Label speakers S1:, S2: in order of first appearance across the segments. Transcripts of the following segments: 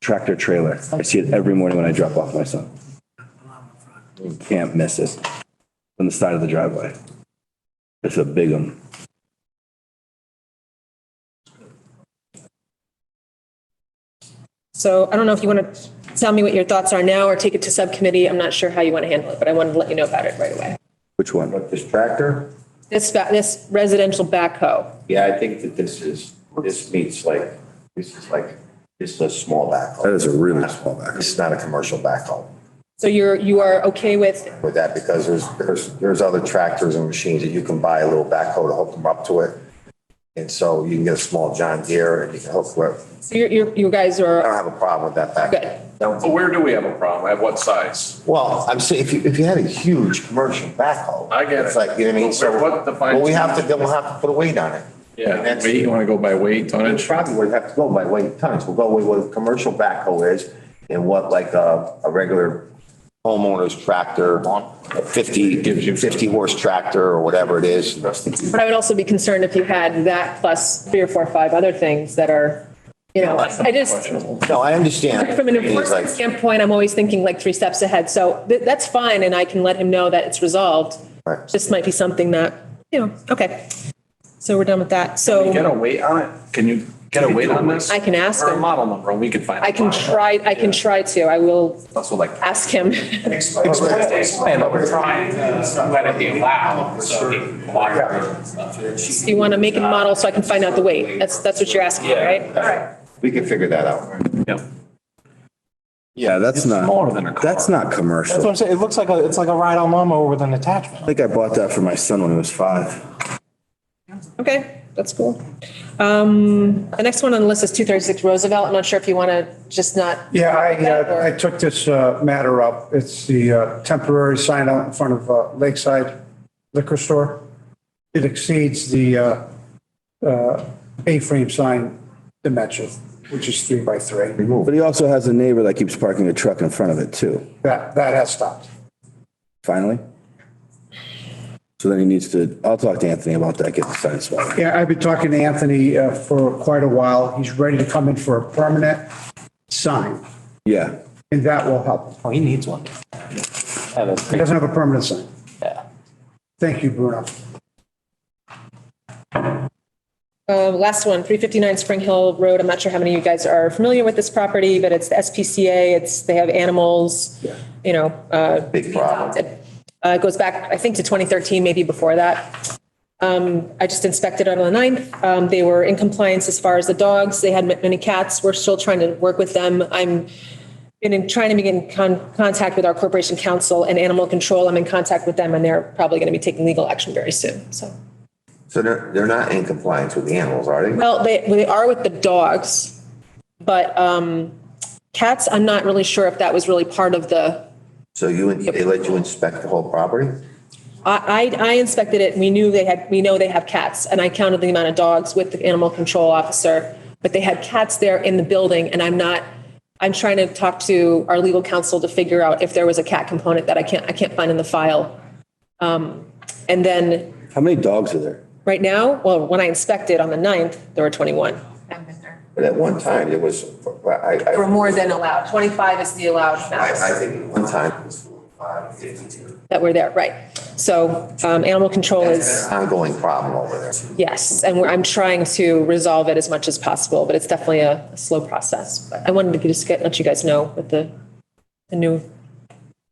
S1: tractor trailer. I see it every morning when I drop off my son. You Can't miss it. On the side of the driveway. It's a big one.
S2: So I don't know if you want to tell me what your thoughts are now or take it to subcommittee. I'm not sure how you want to handle it, but I wanted to let you know about it right away.
S1: Which one?
S3: But this tractor,
S2: This, ba- this residential backhoe.
S3: yeah, I think that this is, this meets like, this is like, this is a small backhoe.
S4: That is a really small backhoe.
S3: This is not a commercial backhoe
S2: So you're, you are okay with,
S3: with that because there's, there's, there's other tractors and machines that you can buy a little backhoe to hook them up to it. And so you can get a small John Deere and you can hook it.
S2: so you're, you're, you guys
S3: I
S2: are,
S3: don't have a problem with that
S2: Good.
S3: backhoe.
S5: But
S3: Don't-
S5: where do we have a problem? At what size?
S3: Well, I'm saying, if you, if you had a huge commercial backhoe.
S5: I get
S3: It's
S5: it.
S3: like, you know what I mean?
S5: But
S3: So,
S5: what defines-
S3: well, we have to, then we'll have to put a weight on it.
S5: Yeah,
S3: And that's-
S5: weight, you want to go by weight,
S3: We
S5: tonnage?
S3: probably would have to go by weight tons. We'll go with what a commercial backhoe is and what like a, a regular homeowner's tractor, a 50,
S5: Gives you-
S3: 50 horse tractor or whatever it is.
S2: but I would also be concerned if you had that plus three or four, or five other things that are, you know, I just,
S3: No, I understand.
S2: from an
S3: It's
S2: enforcement
S3: like-
S2: standpoint, I'm always thinking like three steps ahead. So th- that's fine and I can let him know that it's resolved.
S3: Right.
S2: This might be something that, you know, okay. So we're done with that. So.
S5: Get a weight on it? Can you get a weight on this?
S2: I can ask
S5: Or a
S2: him.
S5: model number, and we could find. a
S2: I can
S5: model.
S2: try, I can try to. I will
S5: Also like.
S2: ask him.
S5: Explain what we're trying.
S6: trying to let it be allowed, so it can cooperate and stuff.
S2: Do you want to make a model so I can find out the weight? That's, that's what you're asking, right?
S3: We can figure that out.
S5: Yeah.
S1: Yeah, that's not.
S5: smaller than a car.
S1: That's not
S7: That's what
S1: commercial. I
S7: I'm saying. It looks like a, it's like a ride-on lawnmower with an attachment.
S1: think I bought that for my son when he was five.
S2: Okay, that's cool. Um, the next one on the list is 236 Roosevelt. I'm not sure if you want to just not.
S8: Yeah, I, uh, I took this uh, matter up. It's the uh, temporary sign out in front of uh, Lakeside Liquor Store. It exceeds the uh, uh, A-frame sign dimension, which is three by three.
S1: But he also has a neighbor that keeps parking a truck in front of it too,
S8: That, that has stopped.
S1: finally. So then he needs to, I'll talk to Anthony about that, get the sign swap.
S8: Yeah, I've been talking to Anthony uh, for quite a while. He's ready to come in for a permanent sign,
S1: Yeah,
S8: and that will help.
S7: Oh, he needs one. Yeah, that's
S8: He
S7: pretty-
S8: doesn't have a permanent sign.
S7: yeah.
S8: Thank you, Bruno.
S2: Uh, last one, 359 Spring Hill Road. I'm not sure how many of you guys are familiar with this property, but it's the SPCA. It's, they have animals, you know, uh,
S3: Big problem.
S2: adopted. Uh, It goes back, I think, to 2013, maybe before that. Um, I just inspected it on the 9th. Um, They were in compliance as far as the dogs. They had ma- many cats. We're still trying to work with them. I'm been in, trying to be in con- contact with our corporation council and animal control. I'm in contact with them, and they're probably going to be taking legal action very soon, so.
S3: So they're, they're not in compliance with the animals, are they?
S2: Well, they, they are with the dogs, but um, cats, I'm not really sure if that was really part of the
S3: So you, they let you inspect the whole property?
S2: I, I I inspected it, we knew they had, we know they have cats, and I counted the amount of dogs with the animal control officer, but they had cats there in the building, and I'm not, I'm trying to talk to our legal counsel to figure out if there was a cat component that I can't, I can't find in the file. Um, And then,
S1: how many dogs are there?
S2: right now, well, when I inspected on the 9th, there were 21.
S3: But at one time, it was, I, I.
S2: Or more than allowed, 25 is the allowed
S3: I,
S2: max.
S3: I think one time it was five, fifty-two.
S2: That were there, right. So um, animal control is.
S3: Ongoing problem over there.
S2: Yes, and we're, I'm trying to resolve it as much as possible, but it's definitely a, a slow process. But I wanted to just get, let you guys know what the, the new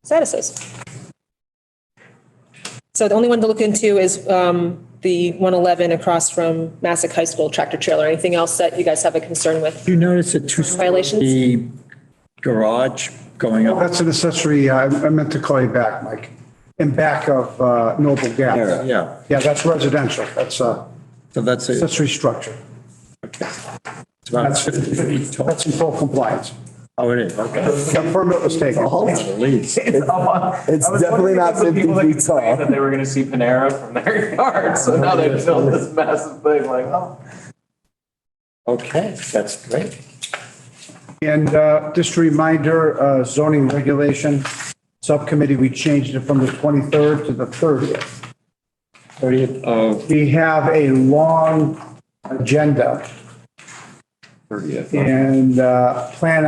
S2: status is. So the only one to look into is, um, the one eleven across from Massac High School tractor trailer. Anything else that you guys have a concern with?
S9: Do you notice a two-story
S2: Violations?
S9: garage going up?
S8: That's an accessory, uh, I I meant to call you back, Mike, in back of uh, Noble Gas.
S9: Yeah,
S8: Yeah, that's residential. That's a
S9: so that's it.
S8: accessory structure.
S9: It's about 50 feet tall.
S8: That's in full compliance.
S9: Oh, it is, okay.
S8: The permit was taken.
S9: Please.
S6: It's
S1: definitely not 50 feet tall.
S6: That they were gonna see Panera from their yard, so now they built this massive thing like, oh.
S9: Okay, that's great.
S8: And uh, just a reminder, uh, zoning regulation subcommittee, we changed it from the 23rd to the 30th.
S9: Thirtieth of,
S8: We have a long agenda. And uh, plan